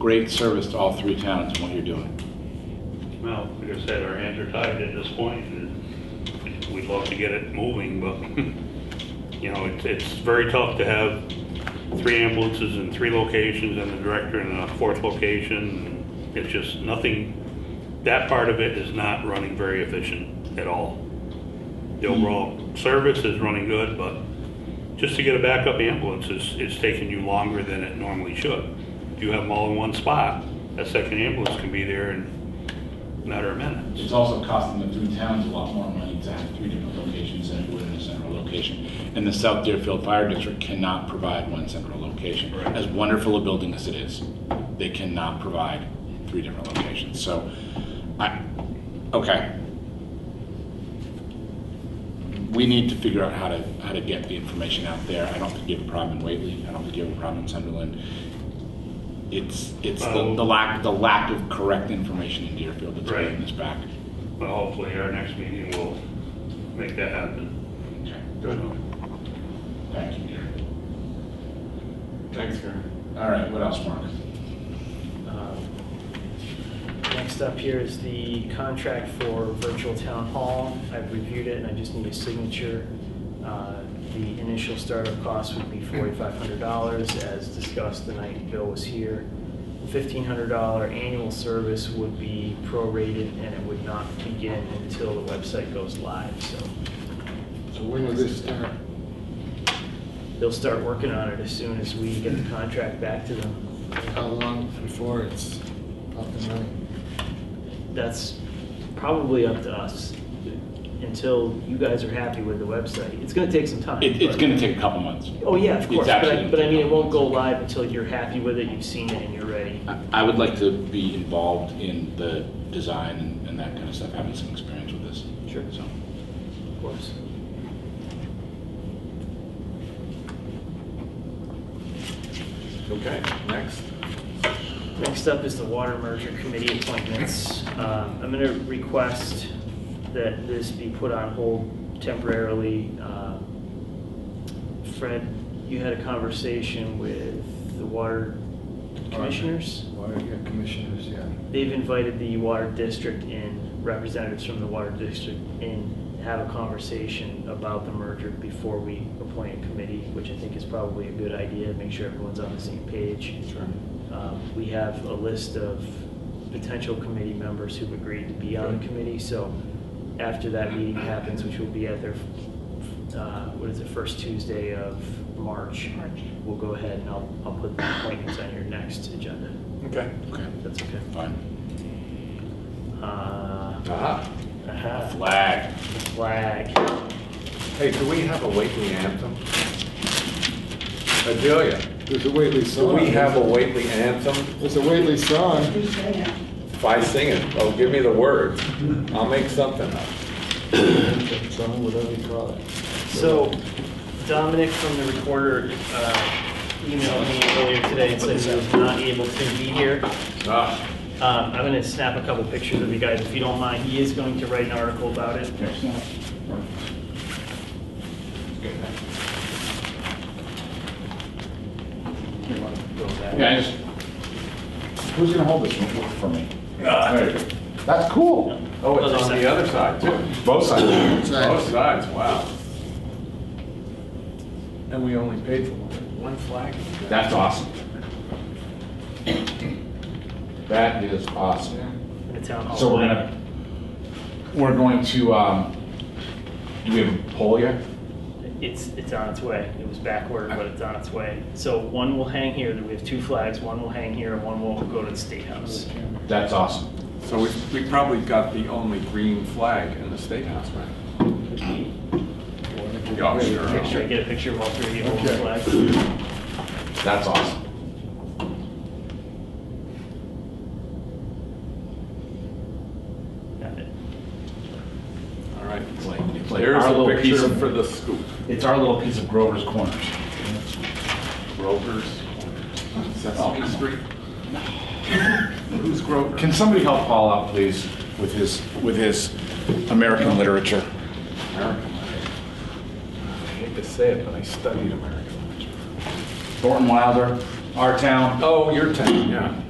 great service to all three towns in what you're doing. Well, like I said, our hands are tied at this point. and We'd love to get it moving, but, you know, it's, it's very tough to have three ambulances in three locations and the director in a fourth location. It's just nothing, that part of it is not running very efficient at all. The overall service is running good, but just to get a backup ambulance is, is taking you longer than it normally should. If you have them all in one spot, that second ambulance can be there in matter of minutes. It's also costing the three towns a lot more money to have three different locations than it would in a central location. And the South Deerfield Fire District cannot provide one central location. Right. As wonderful a building as it is, they cannot provide three different locations. So I, okay. We need to figure out how to, how to get the information out there. I don't think you have a problem in Whately. I don't think you have a problem in Sunderland. It's, it's the, Well- the lack, the lack of correct information in Deerfield that's Right. holding us back. But hopefully our next meeting will make that happen. Okay. So, Thank you, Gary. Thanks, Karen. All right, what else, Mark? Um, Next up here is the contract for virtual town hall. I've reviewed it and I just need a signature. Uh, The initial startup cost would be $4,500 as discussed the night Bill was here. $1,500 annual service would be prorated and it would not begin until the website goes live. So So when will this start? they'll start working on it as soon as we get the contract back to them. How long before it's up and running? that's probably up to us until you guys are happy with the website. It's gonna take some time. It, it's but- gonna take a couple months. Oh, yeah, of it's course, but I, absolutely- but I mean, it won't go live until you're happy with it, you've seen it and you're ready. I- I would like to be involved in the design and, and that kind of stuff, having some experience with this. Sure. So, Of course. Okay, next. Next up is the water merger committee appointments. Um, I'm going to request that this be put on hold temporarily. Um, Fred, you had a conversation with the water commissioners? Water, yeah, commissioners, yeah. They've invited the water district in, representatives from the water district in, to have a conversation about the merger before we appoint a committee, which I think is probably a good idea, make sure everyone's on the same page. Sure. Um, We have a list of potential committee members who've agreed to be on the committee, so after that meeting happens, which will be at their, uh, what is it, first Tuesday of March, we'll go ahead and I'll, I'll put the appointments on your next agenda, Okay. okay, if that's okay. fine. Uh, Ah, aha, Flag. flag. Hey, do we have a Whately anthem? Adelia, there's a Whately do song. Oh. we have a Whately anthem? There's a Whately song. If I sing it, oh, give me the words. I'll make something up. Song, whatever you call it. So Dominic from the recorder uh, emailed me earlier today and said he was not able to be here. Ah, Um, I'm going to snap a couple pictures of you guys if you don't mind. He is going to write an article about it. Yeah, I just, who's gonna hold this one for me? There you go. Uh, That's cool. Oh, Other it's on side. the other side too. Both sides. Sides. Both sides, wow. And we only paid for one. One flag. That's awesome. That is awesome. in the town hall. So we're gonna, we're going to, um, do we have a poll yet? It's, it's on its way. It was backward, but it's on its way. So one will hang here. We have two flags. One will hang here and one will go to the State House. That's awesome. So we, we probably got the only green flag in the State House, right? Yeah, Make sure I sure. get a picture of all three of you holding the Okay. flags. That's awesome. Got it. All right. It's like, it's like There's our a little piece picture for of, the scoop. it's our little piece of Grover's Corners. Grover's, Sesame Street. Who's Grover? Oh, Can somebody help Paul out, please, with his, with his American literature? American literature. I hate to say it, but I studied American literature. Thornton Wilder, Our Town. Oh, your town, yeah.